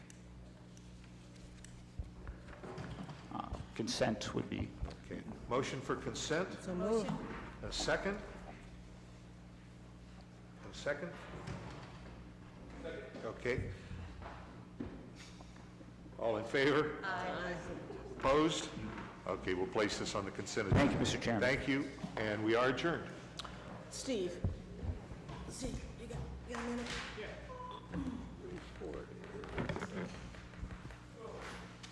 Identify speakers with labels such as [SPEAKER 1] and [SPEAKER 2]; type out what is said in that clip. [SPEAKER 1] consent would be,
[SPEAKER 2] Okay, motion for consent?
[SPEAKER 3] So moved.
[SPEAKER 2] A second? A second? Okay. All in favor? Aye. Opposed? Okay, we'll place this on the consent agenda.
[SPEAKER 1] thank you, Mr. Chairman.
[SPEAKER 2] Thank you, and we are adjourned.
[SPEAKER 3] Steve. Steve, you got, you got a minute?
[SPEAKER 2] Report.